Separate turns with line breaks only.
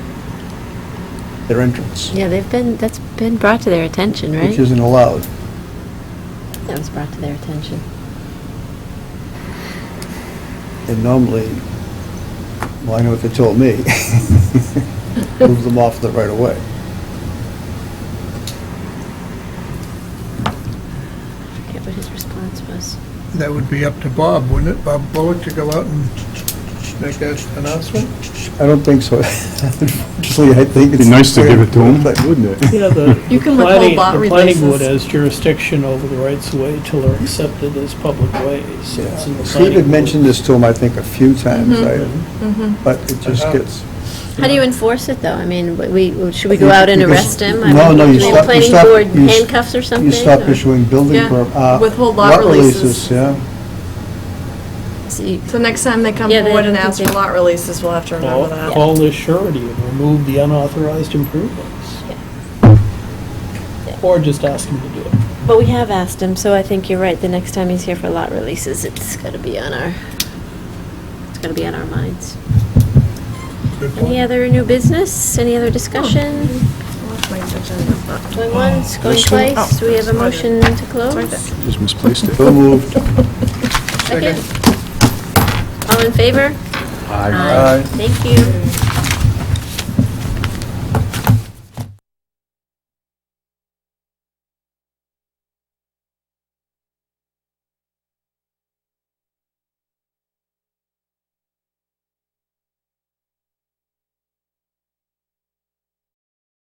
their entrance,
Yeah, they've been, that's been brought to their attention, right?
which isn't allowed.
That was brought to their attention.
And normally, well, I know what they told me, move them off the right of way.
I forget what his response was.
That would be up to Bob, wouldn't it? Bob Bullock to go out and make that announcement?
I don't think so. Actually, I think it's...
Be nice to give it to them.
But Wouldn't it?
Yeah, the
You
the
can withhold
planning,
lot
the planning
releases.
board has jurisdiction over the rights of way till they're accepted as public ways. so it's in the
Steve had
planning
mentioned
board.
this to him, I think, a few times,
Mm-hmm.
I- but it just
Uh-huh.
gets...
How do you enforce it, though? I mean, w- we, should we go out and
Because-
arrest him? I
No,
mean,
no, you
I mean,
stop, you
Planning
stop...
board
you s-
handcuffs or something?
You stop
or-
issuing building
Yeah,
per... uh,
withhold lot releases.
Yeah,
So you-
So next time they come
Yeah, they
forward and
don't
ask
think
for
they-
lot releases, we'll have to
Call
remember that.
call this surety and remove the unauthorized improvements. Or just ask him to do it.
But we have asked him, so I think you're right. The next time he's here for lot releases, it's gotta be on our, it's gotta be on our minds.
Good
Any
point.
other new business? Any other discussion?
That's my agenda, but-
Oh. Going once, going
This one?
twice? Do we have a motion to close?
right there.
Just misplaced it.
so moved.
Second. All in favor?
Aye.
Aye.
Thank you.